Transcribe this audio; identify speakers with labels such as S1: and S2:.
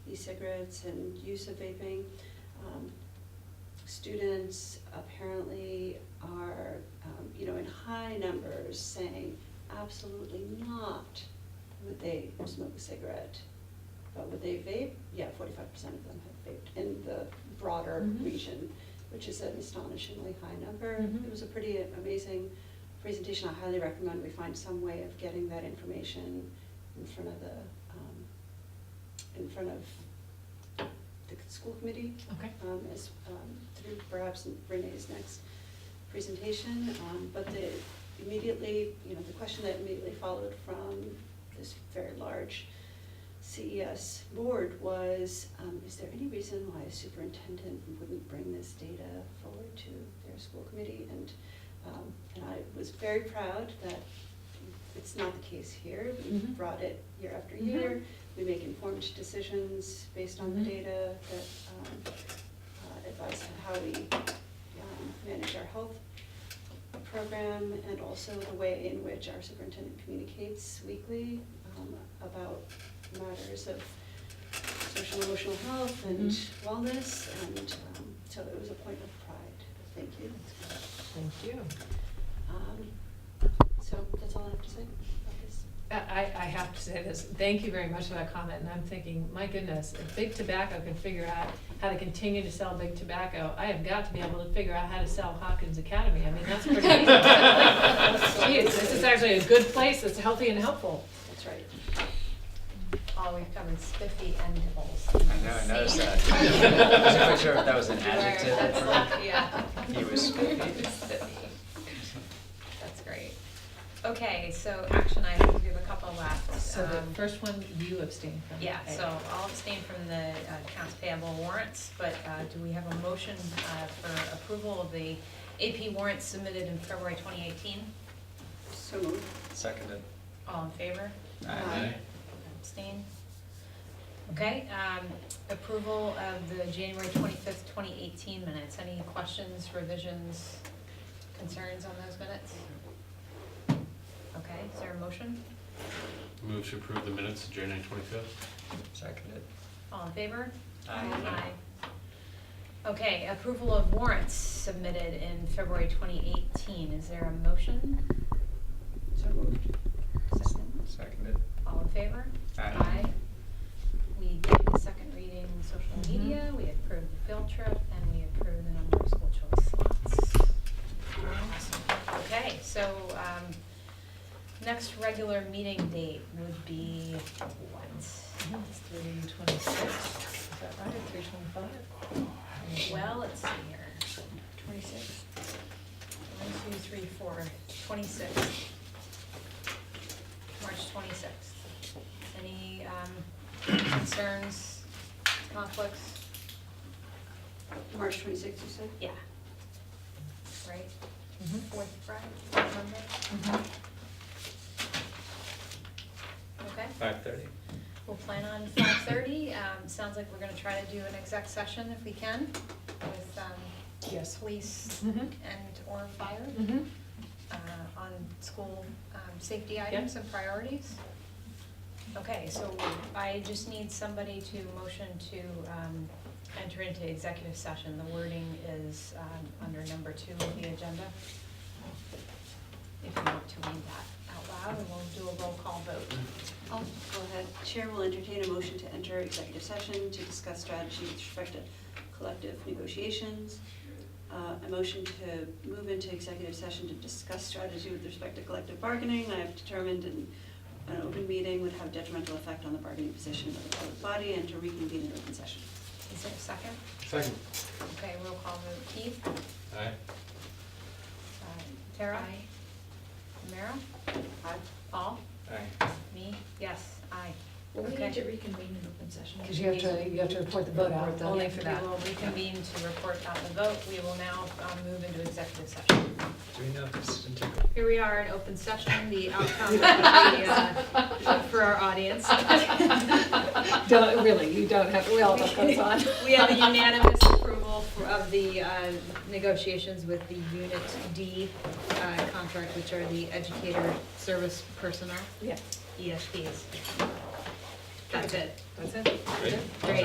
S1: e-cigarettes and use of vaping. Um, Students apparently are, um, you know, in high numbers saying absolutely not would they smoke a cigarette. But would they vape? Yeah, forty-five percent of them have vaped in the broader
S2: Mhm.
S1: region, which is an astonishingly high number.
S2: Mhm.
S1: It was a pretty amazing presentation. I highly recommend we find some way of getting that information in front of the, um, in front of the school committee.
S2: Okay.
S1: Um, as, um, through perhaps Renee's next presentation, um, but the, immediately, you know, the question that immediately followed from this very large CES board was, um, is there any reason why a superintendent wouldn't bring this data forward to their school committee? And, um, and I was very proud that it's not the case here. We've
S2: Mhm.
S1: brought it year after
S2: Mhm.
S1: year. We make informed decisions based on the
S2: Mhm.
S1: data that um, uh, advise on how we um, manage our health program and also the way in which our superintendent communicates weekly um, about matters of social and emotional health and
S2: Mhm.
S1: wellness. And um, so it was a point of pride. Thank you.
S2: Thank you.
S1: Um, So that's all I have to say about this.
S2: I, I I have to say this, thank you very much for that comment, and I'm thinking, my goodness, if Big Tobacco can figure out how to continue to sell Big Tobacco, I have got to be able to figure out how to sell Hawkins Academy, I mean, that's pretty easy. Jeez, this is actually a good place, that's healthy and helpful.
S1: That's right.
S3: Oh, we've come in spiffy end holes.
S4: I know, I noticed that. I wasn't quite sure if that was an
S3: You are- that's
S4: adjective.
S3: like- yeah.
S4: He was spiffy.
S3: Spiffy. That's great. Okay, so action items, we have a couple left.
S2: So the
S3: Um,
S2: first one, you abstain from.
S3: Yeah, so I'll abstain from the uh, accounts payable warrants, but uh, do we have a motion uh, for approval of the AP warrants submitted in February 2018?
S1: So moved.
S4: Seconded.
S3: All in favor?
S1: Aye.
S3: Abstain? Okay, um, approval of the January twenty-fifth, twenty eighteen minutes. Any questions, revisions, concerns on those minutes? Okay, is there a motion?
S5: Move to approve the minutes of January twenty-fifth.
S4: Seconded.
S3: All in favor?
S4: Aye.
S3: Okay, approval of warrants submitted in February twenty eighteen. Is there a motion?
S1: So moved.
S3: Second?
S4: Seconded.
S3: All in favor?
S4: Aye.
S3: We did the second reading,
S2: Mhm.
S3: social media, we approved the field trip, and we approved the number of school choice slots. Awesome. Okay, so, um, next regular meeting date would be what?
S2: three twenty-six, is that right, three twenty-five?
S3: Well, let's see here,
S1: Twenty-six.
S3: one, two, three, four, twenty-sixth. March twenty-sixth. Any, um, concerns, conflicts?
S1: March twenty-sixth, you said?
S3: Yeah. Right?
S2: Mhm.
S3: Fourth Friday, Monday?
S2: Mhm.
S3: Okay,
S4: Five thirty.
S3: we'll plan on five thirty. Um, sounds like we're gonna try to do an exec session if we can with, um,
S2: Yes.
S3: police
S2: Mhm.
S3: and or fire,
S2: Mhm.
S3: uh, on school, um, safety items and priorities. Okay, so I just need somebody to motion to, um, enter into executive session. The wording is, um, under number two of the agenda. If you want to read that out loud, and we'll do a roll call vote.
S1: I'll go ahead. Chair will entertain a motion to enter executive session to discuss strategy with respect to collective negotiations. Uh, A motion to move into executive session to discuss strategy with respect to collective bargaining. I have determined an, an open meeting would have detrimental effect on the bargaining position of the public body and to reconvene in open session.
S3: Is there a second?
S5: Second.
S3: Okay, roll call vote. Keith?
S5: Aye.
S3: Uh, Tara? Mara? Aye. Paul?
S4: Aye.
S3: Me? Yes, aye.
S6: Well, we
S3: Okay.
S6: need to reconvene in open session.
S2: Because you have to, you have to report the vote out.
S3: Only for that. We will reconvene to report out the vote. We will now um, move into executive session.
S4: Do we know if this is in
S3: Here we are in open session, the outcome of the, uh, for our audience.
S2: Don't, really, you don't have, we all know what's on.
S3: We have a unanimous approval for- of the uh, negotiations with the Unit D uh, contract, which are the educator service personnel,
S2: Yeah.
S3: ESPs. That's it.
S2: That's it.
S5: Great.
S3: Great.